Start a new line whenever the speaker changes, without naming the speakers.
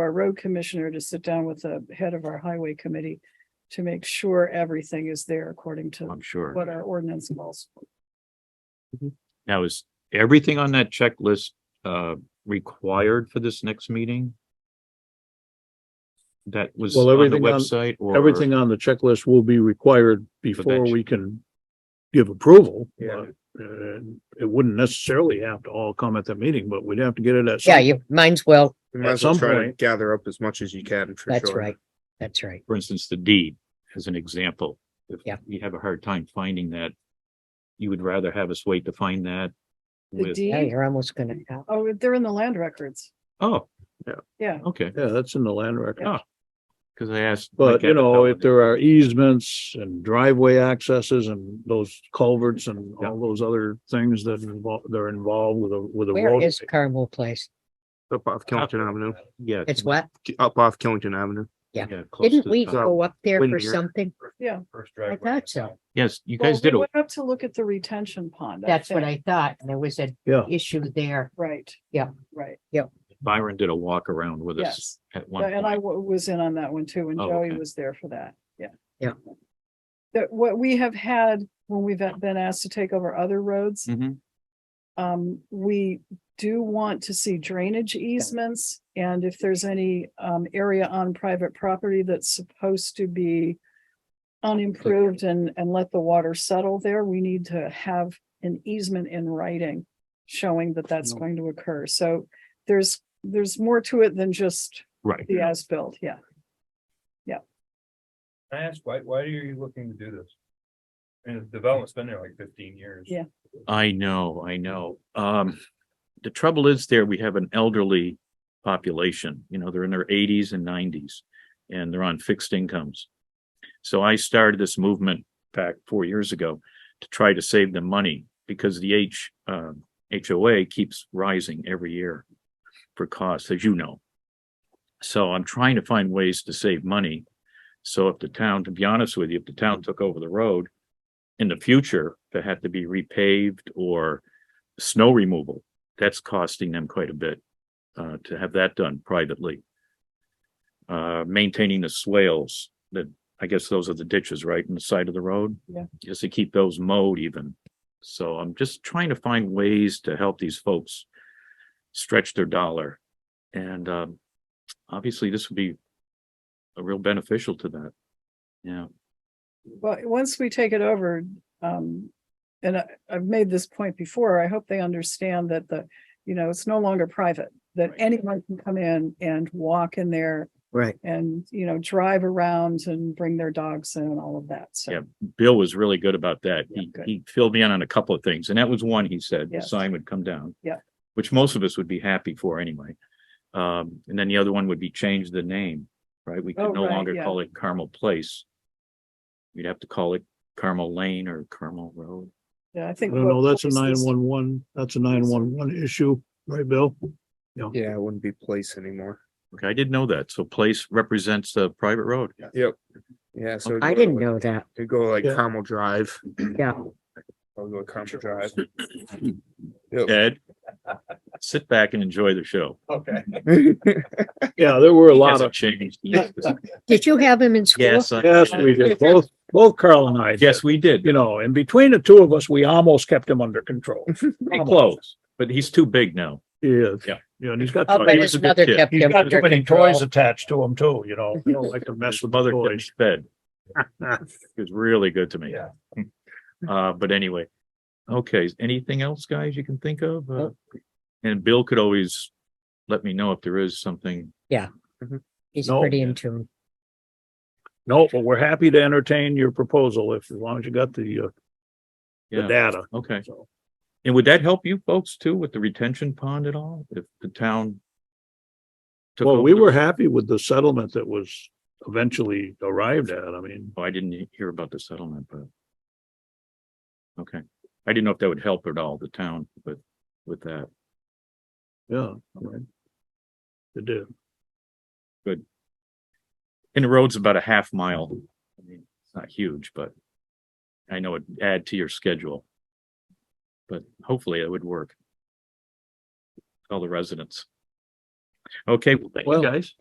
our road commissioner to sit down with the head of our highway committee to make sure everything is there according to
I'm sure.
what our ordinance calls.
Now, is everything on that checklist uh required for this next meeting? That was on
Well,
the
everything on-
website or?
Everything on the checklist will be required before
Eventually.
we can give approval.
Yeah.
but, uh, It wouldn't necessarily have to all come at the meeting, but we'd have to get it at. some-
Yeah, you, mine's well,
We
At
might as well
some
try to
point-
gather up as much as you can for sure.
that's right. That's right.
For instance, the deed as an example. If
Yeah.
You have a hard time finding that. You would rather have us wait to find that
The
with,
Yeah,
deed,
you're almost gonna,
oh, they're in the land records.
oh.
Yeah.
Yeah.
Okay,
Yeah, that's in the land record.
Yeah. because I asked.
But
Mike
you know, if
Abbott,
there are easements and driveway accesses and those culverts and
Yeah.
all those other things that involve, they're involved with a, with a
where
road.
is Carmel Place?
Up off Killington Avenue,
Yeah.
It's what?
up off Killington Avenue.
yeah.
yeah, close
Didn't
to the
we
top.
top.
go up there for
Windermere.
something?
First
I thought so.
Yes, you
Well,
guys did.
we
a-
Went up to look at the retention pond.
That's what
think.
I thought. There was an
Yeah.
issue there.
Right.
Yeah.
Right,
Byron did a walk around with us
yes.
at one
And I
point.
wa- was in on that one too, and
Oh,
Joey
okay.
was there for that, yeah.
Yeah.
That what we have had when we've been asked to take over other roads,
Mm-hmm.
Mhm.
Um, we do want to see drainage easements and if there's any um area on private property that's supposed to be. Unimproved and and let the water settle there, we need to have an easement in writing. Showing that that's going to occur, so there's, there's more to it than just
Right.
the as-built, yeah.
Can I ask, why, why are you looking to do this? And the development's been there like fifteen years.
Yeah.
I know, I know. Um, the trouble is there, we have an elderly population, you know, they're in their eighties and nineties and they're on fixed incomes. So I started this movement back four years ago to try to save them money because the H, um, HOA keeps rising every year for costs, as you know. So I'm trying to find ways to save money. So if the town, to be honest with you, if the town took over the road, in the future that had to be repaved or snow removal, that's costing them quite a bit uh, to have that done privately. Uh, maintaining the swales that, I guess those are the ditches, right, in the side of the road?
Yeah.
Just to keep those mowed even. So I'm just trying to find ways to help these folks stretch their dollar. And um, obviously this would be a real beneficial to that. Yeah.
Well, once we take it over, um, and I, I've made this point before, I hope they understand that the, you know, it's no longer private. That
Right.
anyone can come in and walk in there
Right.
and, you know, drive around and bring their dogs in and all of that,
Yeah.
so.
Bill was really good about that.
Yeah,
He,
good.
he filled me in on a couple of things, and that was one, he said, the
Yes.
sign would come down.
Yeah.
Which most of us would be happy for anyway. Um, and then the other one would be change the name, right? We
Oh,
could no
right,
longer
yeah.
call it Carmel Place. We'd have to call it Carmel Lane or Carmel Road.
Yeah, I
I
think.
don't know,
both
that's a nine
places-
one one, that's a nine one one issue, right, Bill?
Yeah, it wouldn't be place anymore.
Okay, I didn't know that. So place represents a private road.
Yep. Yeah, so.
I didn't know that.
It'd go like
Yeah.
Carmel Drive.
Yeah.
I'll go Carmel Drive.
Ed, sit back and enjoy the show.
Okay.
Yeah, there were a
He
lot
hasn't
of,
changed.
Did you have him in school?
Yes, uh, I-
yes, we did, both, both Carl and I. did.
yes, we did.
You know, and between the two of us, we almost kept him under control.
Pretty Close, but he's too big now.
Yeah.
Yeah.
Yeah, and he's got.
I'll bet
was
his
a good
mother
kid.
kept
He's
him
got too
under
many
control.
toys attached to him too, you know, you don't like to mess
His
with
mother
other
kept me
toys.
fed. He was really good to me.
Yeah.
Uh, but anyway, okay, is anything else, guys, you can think of? Uh, And Bill could always let me know if there is something.
He's
No.
pretty in tune.
No, but we're happy to entertain your proposal if, as long as you got the, uh, the
Yeah,
data.
okay.
So,
And would that help you folks too with the retention pond at all? If the town? took
Well,
over
we
the-
were happy with the settlement that was eventually arrived at. I mean,
Oh, I didn't hear about the settlement, but. Okay, I didn't know if that would help at all, the town, but with that.
yeah. I mean, It did.
And the road's about a half mile. I mean, it's not huge, but I know it would add to your schedule. But hopefully it would work. All the residents. Okay, well, thank you
Well,
guys.